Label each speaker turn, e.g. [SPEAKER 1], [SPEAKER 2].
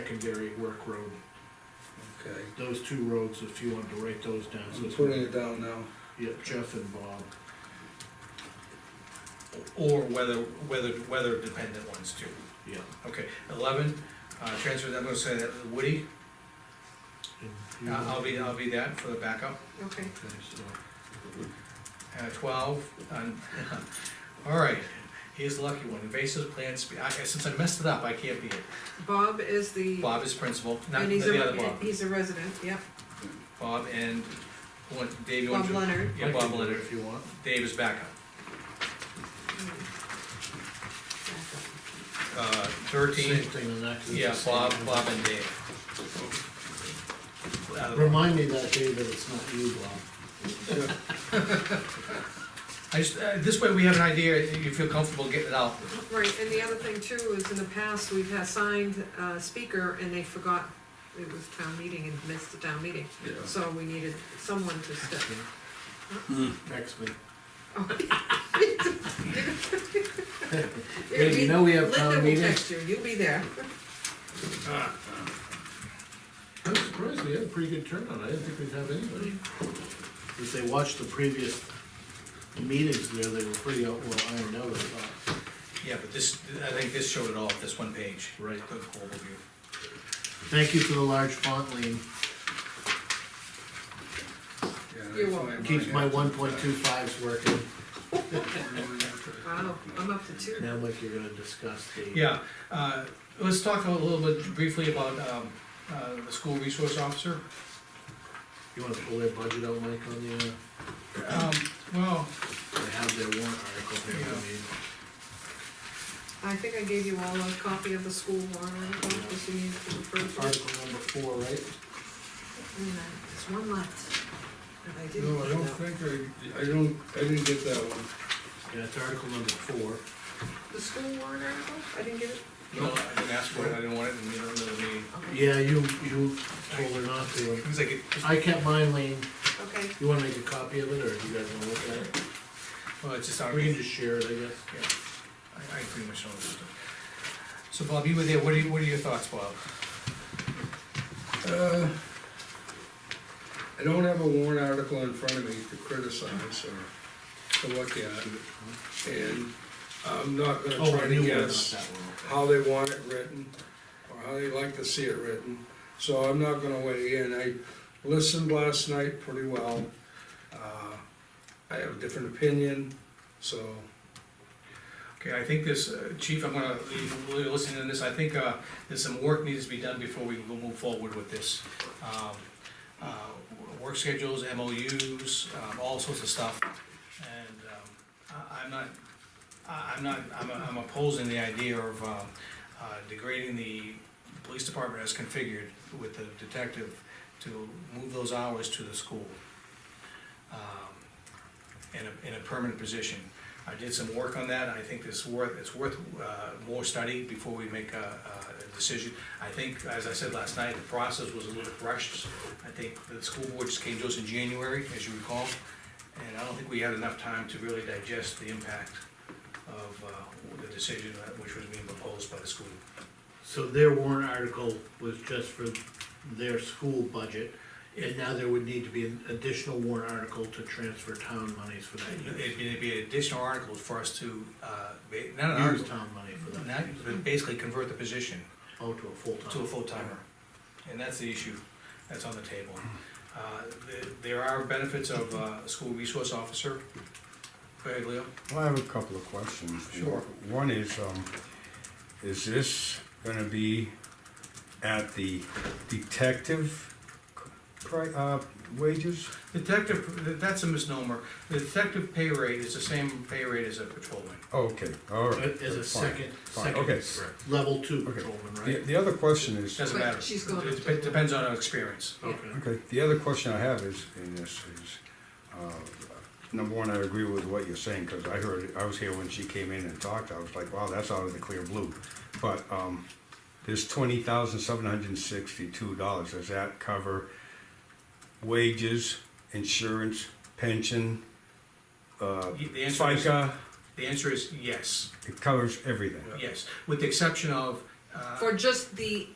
[SPEAKER 1] secondary work road.
[SPEAKER 2] okay.
[SPEAKER 1] Those two roads, if you wanted to write those down, so
[SPEAKER 2] I'm
[SPEAKER 1] it's.
[SPEAKER 2] putting it down now.
[SPEAKER 1] Yeah, Jeff and Bob,
[SPEAKER 3] Or whether, whether, weather dependent ones too.
[SPEAKER 1] yeah.
[SPEAKER 3] Okay, eleven, uh, transfer, I'm gonna say that Woody,
[SPEAKER 1] And
[SPEAKER 3] I-
[SPEAKER 1] you-
[SPEAKER 3] I'll be, I'll be that for the backup.
[SPEAKER 4] okay.
[SPEAKER 1] Okay, so,
[SPEAKER 3] Uh, twelve, um, all right, he's the lucky one, invasive plants, I, since I messed it up, I can't be it.
[SPEAKER 4] Bob is the.
[SPEAKER 3] Bob is principal, not
[SPEAKER 4] And he's
[SPEAKER 3] the other
[SPEAKER 4] a,
[SPEAKER 3] Bob,
[SPEAKER 4] he's a resident, yep,
[SPEAKER 3] Bob and, what, Dave, you want
[SPEAKER 4] Bob
[SPEAKER 3] to?
[SPEAKER 4] Leonard.
[SPEAKER 3] Yeah,
[SPEAKER 1] I can
[SPEAKER 3] Bob
[SPEAKER 1] do it
[SPEAKER 3] Leonard,
[SPEAKER 1] If you want.
[SPEAKER 3] Dave is backup. Uh,
[SPEAKER 1] Same
[SPEAKER 3] thirteen,
[SPEAKER 1] thing on that. 'cause it's
[SPEAKER 3] yeah,
[SPEAKER 1] the same
[SPEAKER 3] Bob,
[SPEAKER 1] thing.
[SPEAKER 3] Bob and Dave. Uh,
[SPEAKER 1] Remind me that day that it's not you, Bob.
[SPEAKER 3] I just, uh, this way we have an idea, if you feel comfortable getting it out.
[SPEAKER 4] Right, and the other thing too is in the past, we've had signed uh speaker and they forgot it was town meeting and missed the town meeting.
[SPEAKER 2] Yeah.
[SPEAKER 4] So we needed someone to step in.
[SPEAKER 1] Next week.
[SPEAKER 4] It'll
[SPEAKER 1] Hey, you
[SPEAKER 4] be-
[SPEAKER 1] know we have town
[SPEAKER 4] Linda
[SPEAKER 1] meeting?
[SPEAKER 4] will text you, you'll be there.
[SPEAKER 1] I'm surprised we had a pretty good turnout, I didn't think we'd have anybody. If they watched the previous meetings there, they were pretty out, well, ironed out, I thought.
[SPEAKER 3] Yeah, but this, I think this showed it all, this one page.
[SPEAKER 1] Right.
[SPEAKER 3] The overview.
[SPEAKER 1] Thank you for the large font, Lean,
[SPEAKER 2] Yeah,
[SPEAKER 4] You're
[SPEAKER 2] I
[SPEAKER 4] welcome.
[SPEAKER 2] find
[SPEAKER 1] keeps
[SPEAKER 2] mine
[SPEAKER 1] my
[SPEAKER 2] after
[SPEAKER 1] one point two fives working.
[SPEAKER 2] that.
[SPEAKER 4] Wow, I'm up to two.
[SPEAKER 1] Now, Mike, you're gonna discuss the.
[SPEAKER 3] Yeah, uh, let's talk a little bit briefly about, um, uh, the school resource officer.
[SPEAKER 1] You wanna pull their budget out, Mike, on the, uh,
[SPEAKER 3] Um, well,
[SPEAKER 1] they have their warrant article here, I mean,
[SPEAKER 4] I think I gave you all a copy of the school warrant article, if you need to refer to it.
[SPEAKER 1] article number four, right?
[SPEAKER 4] And, uh, There's one left. And I didn't.
[SPEAKER 2] No, I don't
[SPEAKER 4] put it out.
[SPEAKER 2] think I, I don't, I didn't get that one.
[SPEAKER 1] Yeah, it's article number four.
[SPEAKER 4] The school warrant article, I didn't get it?
[SPEAKER 3] you know, I didn't ask for it, I didn't want it, and you don't know me.
[SPEAKER 4] Okay.
[SPEAKER 1] Yeah, you, you told her not to.
[SPEAKER 3] Because I get,
[SPEAKER 1] I kept mine, Lean,
[SPEAKER 4] Okay,
[SPEAKER 1] you wanna make a copy of it, or do you guys wanna look at it?
[SPEAKER 3] well, it's just, I
[SPEAKER 1] We can
[SPEAKER 3] mean,
[SPEAKER 1] just share it, I guess.
[SPEAKER 3] yeah, I, I pretty much know this stuff. So Bob, you were there, what are, you- what are your thoughts, Bob?
[SPEAKER 2] Uh, I don't have a warrant article in front of me to criticize or to look at. And I'm not gonna
[SPEAKER 1] Oh,
[SPEAKER 2] try
[SPEAKER 1] I
[SPEAKER 2] to
[SPEAKER 1] knew one, not
[SPEAKER 2] guess
[SPEAKER 1] that one.
[SPEAKER 2] how they want it written, or how they like to see it written, so I'm not gonna weigh in. I listened last night pretty well. Uh, I have a different opinion, so,
[SPEAKER 3] Okay, I think this, uh, Chief, I'm gonna leave, listening to this, I think, uh, there's some work needs to be done before we will move forward with this. Um, uh, Work schedules, MOUs, um, all sorts of stuff, and, um, I, I'm not, I, I'm not, I'm, I'm opposing the idea of, um, uh, degrading the police department as configured with the detective to move those hours to the school. um, In a, in a permanent position. I did some work on that, I think it's worth, it's worth uh, more study before we make a, a decision. I think, as I said last night, the process was a little bit rushed. I think the school board just came to us in January, as you recall, and I don't think we had enough time to really digest the impact of uh, the decision that- which was being proposed by the school.
[SPEAKER 1] So their warrant article was just for their school budget, and now there would need to be an additional warrant article to transfer town monies for that.
[SPEAKER 3] It'd be- it'd be additional articles for us to, uh, ba- not an
[SPEAKER 1] Use
[SPEAKER 3] article,
[SPEAKER 1] town money for that,
[SPEAKER 3] not, but basically convert the position.
[SPEAKER 1] oh, to a
[SPEAKER 3] to a
[SPEAKER 1] full-time.
[SPEAKER 3] full timer. And that's the issue that's on the table. Uh, the- There are benefits of uh, a school resource officer. Go ahead, Leo.
[SPEAKER 5] Well, I have a couple of questions.
[SPEAKER 3] Sure.
[SPEAKER 5] One is, um, is this gonna be at the detective pri- uh, wages?
[SPEAKER 3] Detective, that's a misnomer. The detective pay rate is the same pay rate as a patrolman.
[SPEAKER 5] Oh, okay, all right.
[SPEAKER 1] As a
[SPEAKER 5] that's fine.
[SPEAKER 1] second,
[SPEAKER 5] Fine, okay.
[SPEAKER 1] second, level two
[SPEAKER 5] Okay.
[SPEAKER 1] patrolman,
[SPEAKER 5] The,
[SPEAKER 1] right?
[SPEAKER 5] the other question is,
[SPEAKER 3] Doesn't
[SPEAKER 4] But
[SPEAKER 3] matter.
[SPEAKER 4] she's going
[SPEAKER 3] It
[SPEAKER 4] up
[SPEAKER 3] dep-
[SPEAKER 4] to-
[SPEAKER 3] Depends on our experience.
[SPEAKER 1] Okay,
[SPEAKER 5] okay, the other question I have is, in this is, uh, number one, I agree with what you're saying, cause I heard, I was here when she came in and talked, I was like, wow, that's out of the clear blue. But, um, this twenty thousand seven hundred and sixty-two dollars, does that cover wages, insurance, pension, uh,
[SPEAKER 3] Y- The answer is,
[SPEAKER 5] FICA?
[SPEAKER 3] the answer is yes,
[SPEAKER 5] It covers everything.
[SPEAKER 3] yes, with the exception of, uh,
[SPEAKER 4] for just the